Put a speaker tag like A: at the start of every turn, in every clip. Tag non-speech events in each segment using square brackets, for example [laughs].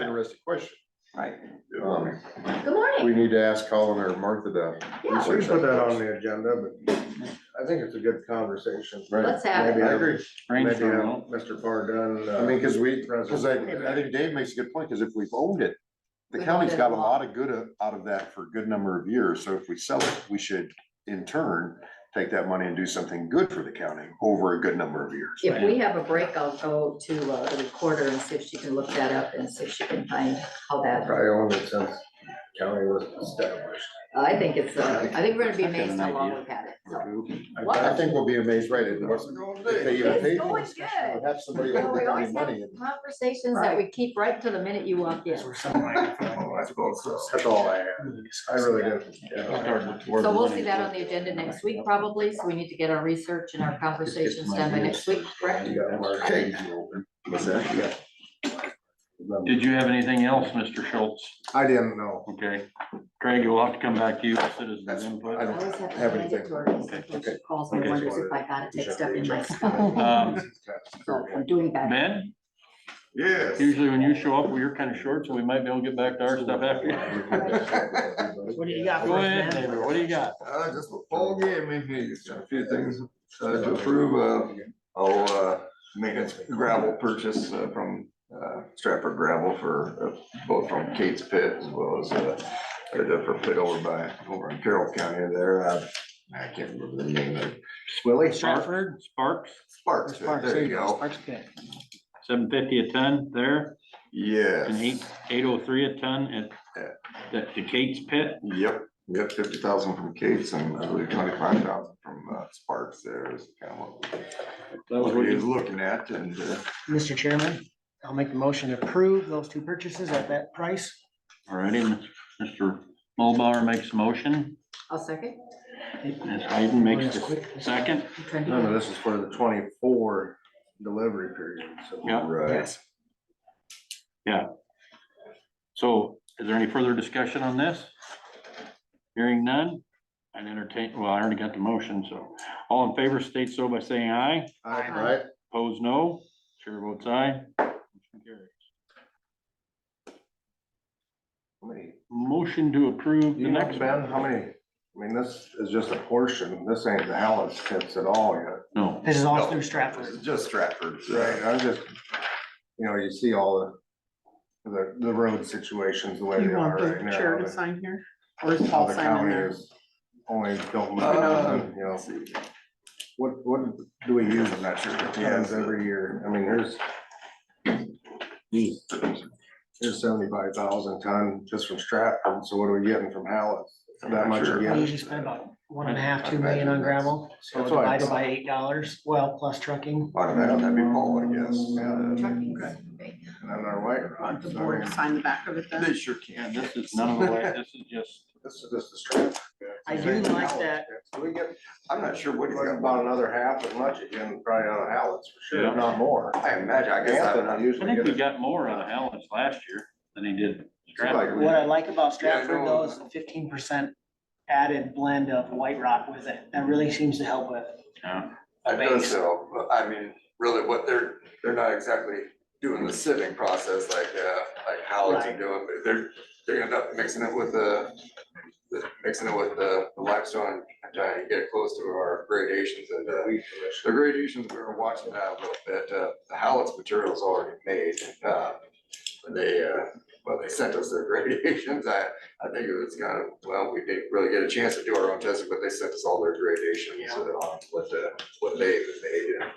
A: interesting question.
B: right?
A: Um,
C: Good morning.
A: We need to ask Colin or Martha to.
C: Yeah,
D: We should put that on the agenda, but I think it's a good conversation.
C: let's have
D: Maybe
C: it.
A: I agree.
D: Maybe uh, have
E: Brainstorm, no?
D: Mr. Pardon. uh,
A: I mean, cause we,
C: uh,
D: Present.
A: cause I, I think Dave makes a good point, cause if we've owned it, the
C: We've
A: county's
C: owned it
A: got a
C: a lot.
A: lot of good o- out of that for a good number of years, so if we sell it, we should in turn take that money and do something good for the county over a good number of years.
C: If we have a break, I'll go to uh, the recorder and see if she can look that up and see if she can find how that,
D: Probably owned it since county was established.
C: I think it's, uh, I think we're gonna be
E: I got
C: amazed
E: an
C: how long
E: idea.
C: we've had it. so. What?
A: I I think we'll be amazed, right, it wasn't, if they even
C: It's
A: paid
C: going
A: for it,
C: good.
A: have somebody
C: Well,
A: over
C: we always
A: the
C: have
A: money. and-
C: Conversations that we keep right till the minute you walk in. So
D: That's all I had. I really didn't. yeah.
C: we'll see that on the agenda next week probably, so we need to get our research and our conversations done by next week, correct?
D: You got more
A: Okay.
D: things you open.
A: What's that?
E: Did you have anything else, Mr. Schultz?
D: I didn't know.
E: Okay, Craig, we'll have to come back to you with citizens
A: That's-
E: input.
A: I
C: I
A: don't
C: always have to
A: have
C: hand it to her, sometimes she calls me,
E: Okay.
C: and wonders if I gotta take stuff in my stuff,
E: Um,
C: I'm doing bad.
E: Ben,
A: Yes.
E: usually when you show up, you're kind of short, so we might be able to get back to our stuff after.
B: What do you got?
E: Go ahead, neighbor, what do you got?
F: Uh, just a full game in here, just a few things uh, to approve of. I'll, uh, make a gravel purchase uh, from, uh, Stratford Gravel for, uh, both from Kate's Pit as well as, uh, or the for pit over by, over in Carroll County there, uh, I can't remember the name of it.
E: Willie. Stratford, Sparks,
F: Sparks, Pit, there you go.
E: seven fifty a ton there, and eight,
F: Yes,
E: eight oh three a ton at, at the Kate's Pit.
F: yep, yep, fifty thousand from Kate's and I believe twenty-five thousand from, uh, Sparks there is kind of what
E: That was
F: what
E: what
F: he was
E: you,
F: looking at and, uh,
G: Mr. Chairman, I'll make the motion to approve those two purchases at that price.
E: all righty, Mr. Mulbauer makes a motion,
C: I'll second.
E: Ms. Hayden makes
G: That's
E: the
G: quick.
E: second.
C: I'm trying to
D: Remember,
C: get-
D: this is for the twenty-four delivery period, so.
E: Yeah.
F: right.
E: So is there any further discussion on this? Hearing none, I'd entertain, well, I already got the motion, so all in favor state so by saying aye,
D: I-
A: Right?
E: opposed no, chair votes aye. Motion carries.
D: How many-
E: Motion to approve the
D: You know,
E: next
D: Ben,
E: one.
D: how many, I mean, this is just a portion, this ain't the Hallett's tips at all yet.
E: No,
G: This is all
F: No.
G: through
F: This
G: Stratford.
F: is Just Stratford.
D: Right, I just, you know, you see all the, the, the road situations the way they
B: You
D: are
B: want
D: right
B: the
D: now.
B: chair to
D: and
B: sign here? Or is
D: how
B: Paul
D: the
B: signing
D: county
B: there? Oh,
D: is Only don't, look
F: Uh,
D: at it, you know, what, what do we use in that church plans every year? I mean, there's, there's seventy-five thousand ton just from Stratford, so what are we getting from Hallett's? That much
F: Sure.
G: We
D: again?
G: usually spend about one and a half, two million on gravel, so
D: That's why I-
G: divided by eight dollars, well, plus trucking.
F: I'd imagine that'd be Paul, I guess.
C: Trucking.
F: Yeah.
D: And then our white
B: Want
D: rock.
B: uh, the board to sign the back of it
F: They
B: then?
F: sure can.
E: and this is none of the way, this is just,
D: This is just a strip.
B: I do like that.
D: So we get,
F: I'm not sure what
D: we
F: he's
D: get
F: got.
D: about another half as much again, probably on Hallett's for sure,
E: Yeah.
D: if not more.
F: I imagine, I guess.
D: Anthony
F: I-
E: I
D: usually
E: think we
D: gets-
E: got more out of Allen's last year than he did. Stratford.
F: Like,
G: What I like about
F: Yeah, I
G: Stratford
F: know.
G: though is the fifteen percent added blend of white rock with it. That really seems to help with.
E: Yeah.
F: I know so, but I mean, really what they're, they're not exactly doing the sitting process like, uh, like Howard's are
G: Right.
F: doing, but they're, they're gonna end up mixing it with the, the- mixing it with the the limestone, and trying to get close to our gradations and, uh, The gradations, we were watching that a little bit, uh, the Hallett's material is already made, uh, when they, uh, when they sent us their [laughs] gradations, I, I think it was kind of, well, we didn't really get a chance to do our own testing, but they sent us all their gradations, uh, on what the, what they had made and.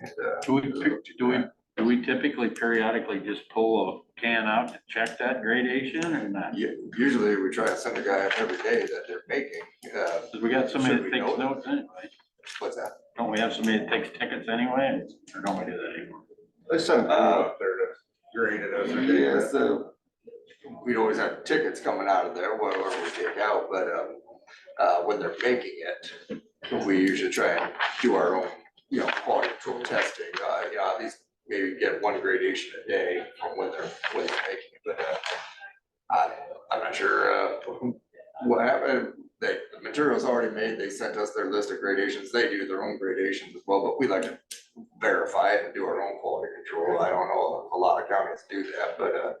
F: and, uh,
E: Do we, do we, do we typically periodically just pull a can out to check that gradation or not?
F: u- Usually we try to send a guy every day that they're making, uh,
E: Cause we got somebody
F: Should
E: that
F: we
E: takes
F: know?
E: notes anyway.
F: what's that?
E: Don't we have somebody that takes tickets anyway, or don't we do that anymore?
D: They sent people
F: Uh,
D: up there to grade it as they
F: Yeah,
D: did.
F: so we'd always have tickets coming out of there, whatever we take out, but, um, uh, when they're making it, we usually try and do our own, you know, quality control testing, uh, you know, at least maybe get one gradation a day from when they're, when they're making it, but, uh, I, I'm not sure, uh, what happened, they, the material's already made, they sent us their list of gradations, they do their own gradations as well, but we like to verify it and do our own quality control. I don't know, a lot of counties do that, but, uh,